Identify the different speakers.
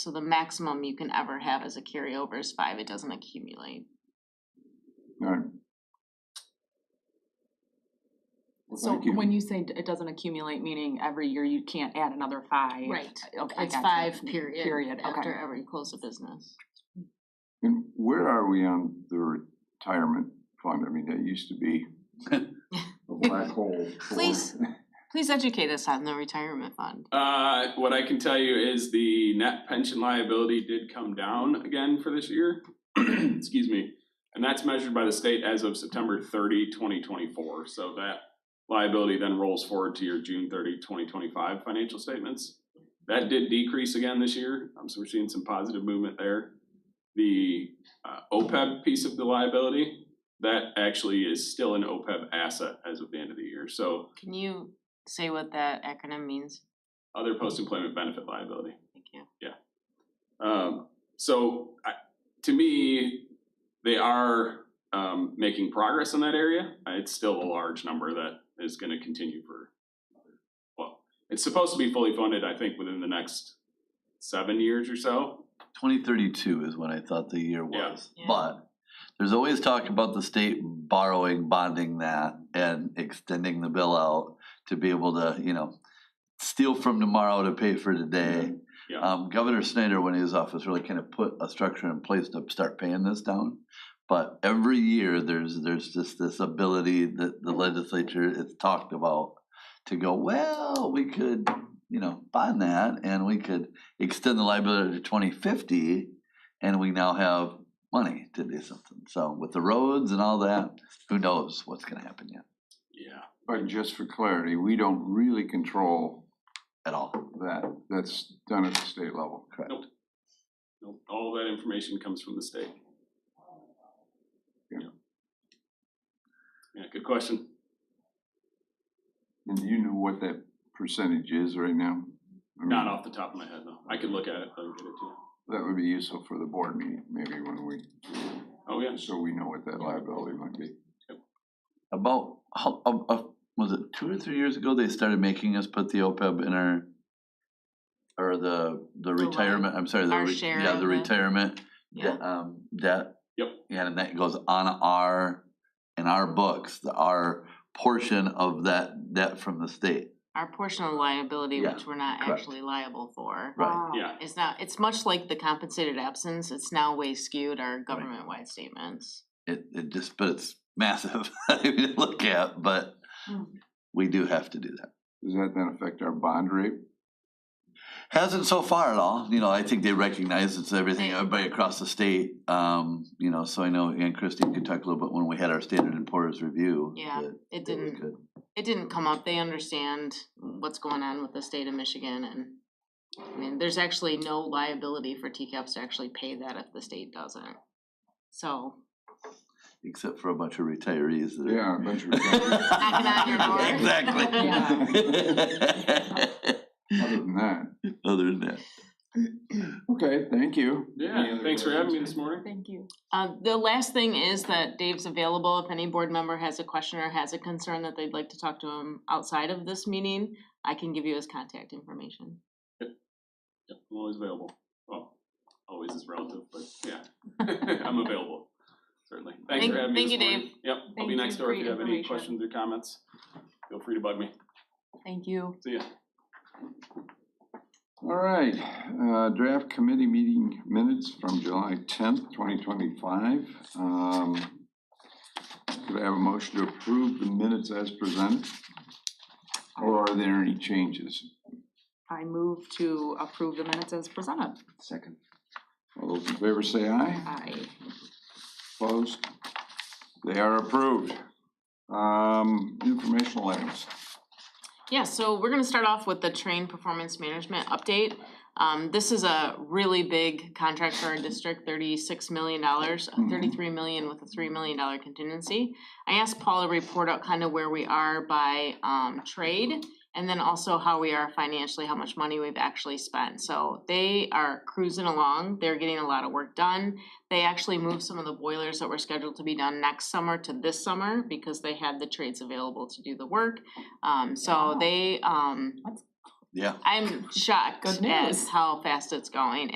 Speaker 1: So the maximum you can ever have as a carryover is five, it doesn't accumulate.
Speaker 2: Alright,
Speaker 3: So
Speaker 2: Thank you.
Speaker 3: when you say d- it doesn't accumulate, meaning every year you can't add another five?
Speaker 1: Right.
Speaker 3: Okay, I
Speaker 1: It's
Speaker 3: gotcha.
Speaker 1: five, period.
Speaker 3: Period,
Speaker 1: After
Speaker 3: okay.
Speaker 1: every close of business.
Speaker 2: and where are we on the retirement fund? I mean, that used to be a black hole. for-
Speaker 1: Please. Please educate us on the retirement fund.
Speaker 4: Uh, what I can tell you is the net pension liability did come down again for this year. Excuse me. And that's measured by the state as of September 30, 2024. So that liability then rolls forward to your June 30, 2025 financial statements. That did decrease again this year. Um, so we're seeing some positive movement there. The uh, OPEB piece of the liability, that actually is still an OPEB asset as of the end of the year. So
Speaker 1: Can you say what that acronym means?
Speaker 4: other post-employment benefit liability.
Speaker 1: Thank you.
Speaker 4: Um, so I, to me, they are um, making progress in that area. Uh, It's still a large number that is going to continue for. Well, it's supposed to be fully funded. I think within the next seven years or so.
Speaker 5: Twenty thirty-two is when I thought the year
Speaker 4: Yeah.
Speaker 5: was,
Speaker 1: Yeah.
Speaker 5: but there's always talk about the state borrowing, bonding that and extending the bill out to be able to, you know, steal from tomorrow to pay for today.
Speaker 4: Yeah.
Speaker 2: Uh.
Speaker 5: Um, Governor Snyder, when he was office, really kind of put a structure in place to start paying this down. But every year, there's, there's just this ability that the legislature has talked about to go, well, we could, you know, bond that and we could extend the liability to twenty fifty, and we now have money to do something. So with the roads and all that, who knows what's gonna happen yet
Speaker 4: Yeah.
Speaker 2: But just for clarity, we don't really control
Speaker 5: at all.
Speaker 2: that, that's done at the state level.
Speaker 4: Nope, All that information comes from the state. Yeah. Yeah. Good question.
Speaker 2: And you know what that percentage is right now? I mean,
Speaker 4: Not off the top of my head though. I could look at it. but I would get it to you.
Speaker 2: That would be useful for the board meeting, maybe when we,
Speaker 4: Oh yeah.
Speaker 2: so we know what that liability might be.
Speaker 5: About, how, uh, uh, was it two or three years ago, they started making us put the OPEB in our, or the, the
Speaker 1: The what?
Speaker 5: retirement, I'm sorry, the,
Speaker 1: Our
Speaker 5: re-
Speaker 1: share
Speaker 5: yeah,
Speaker 1: of
Speaker 5: the
Speaker 1: it.
Speaker 5: retirement,
Speaker 1: Yeah,
Speaker 5: de- um, debt.
Speaker 4: Yep.
Speaker 5: Yeah, and that goes on our, in our books, the, our portion of that debt from the state,
Speaker 1: our portion of liability,
Speaker 5: Yeah,
Speaker 1: which we're not
Speaker 5: correct.
Speaker 1: actually liable for.
Speaker 5: right?
Speaker 4: Yeah.
Speaker 1: It's not, it's much like the compensated absence, it's now way skewed our government-wide statements.
Speaker 5: It, it just, but it's massive to look at, but
Speaker 1: Mm.
Speaker 5: we do have to do that.
Speaker 2: Does that then affect our bond rate?
Speaker 5: Hasn't so far at all, you know, I think they recognize it's everything,
Speaker 1: They-
Speaker 5: everybody across the state, um, you know, so I know, and Christine could talk a little bit when we had our standard and poor's review.
Speaker 1: Yeah,
Speaker 5: that
Speaker 1: It
Speaker 5: it was
Speaker 1: didn't,
Speaker 5: good.
Speaker 1: it didn't come up, they understand what's going on with the state of Michigan and I mean, there's actually no liability for TCAPs to actually pay that if the state doesn't. So,
Speaker 5: Except for a bunch of retirees that are.
Speaker 2: Yeah, a bunch of.
Speaker 1: Knocking on your door.
Speaker 5: Exactly.
Speaker 2: Other than that,
Speaker 5: Other than that,
Speaker 2: okay, thank you. Any
Speaker 4: Yeah.
Speaker 2: other
Speaker 4: Thanks for having me
Speaker 2: questions?
Speaker 4: this morning.
Speaker 3: Thank you.
Speaker 1: uh, the last thing is that Dave's available if any board member has a question or has a concern that they'd like to talk to him outside of this meeting, I can give you his contact information.
Speaker 4: Yep, I'm always available. Well, always is relative, but yeah, I'm available, certainly. Thanks
Speaker 1: Thank-
Speaker 4: for having me
Speaker 1: thank you,
Speaker 4: this morning.
Speaker 1: Dave.
Speaker 4: Yep, I'll be
Speaker 3: Thank
Speaker 4: next
Speaker 3: you
Speaker 4: door
Speaker 3: for
Speaker 4: if you
Speaker 3: your
Speaker 4: have any
Speaker 3: information.
Speaker 4: questions or comments. Feel free to bug me.
Speaker 3: Thank you.
Speaker 4: See ya.
Speaker 2: All right, uh, draft committee meeting minutes from July tenth, twenty twenty-five. Um, could I have a motion to approve the minutes as presented? Or are there any changes?
Speaker 3: I move to approve the minutes as presented.
Speaker 2: Second. All those in favor say aye.
Speaker 3: Aye.
Speaker 2: Opposed? They are approved. Um, informational items.
Speaker 1: Yeah, so we're gonna start off with the train performance management update. Um, this is a really big contract for our district, thirty-six million dollars, thirty-three million with a three million dollar contingency. I asked Paul to report out kind of where we are by, um, trade, and then also how we are financially, how much money we've actually spent. So they are cruising along, they're getting a lot of work done. They actually moved some of the boilers that were scheduled to be done next summer to this summer, because they had the trades available to do the work. Um, so they, um,
Speaker 5: yeah.
Speaker 1: I'm shocked
Speaker 3: Good
Speaker 1: at
Speaker 3: news.
Speaker 1: how fast it's going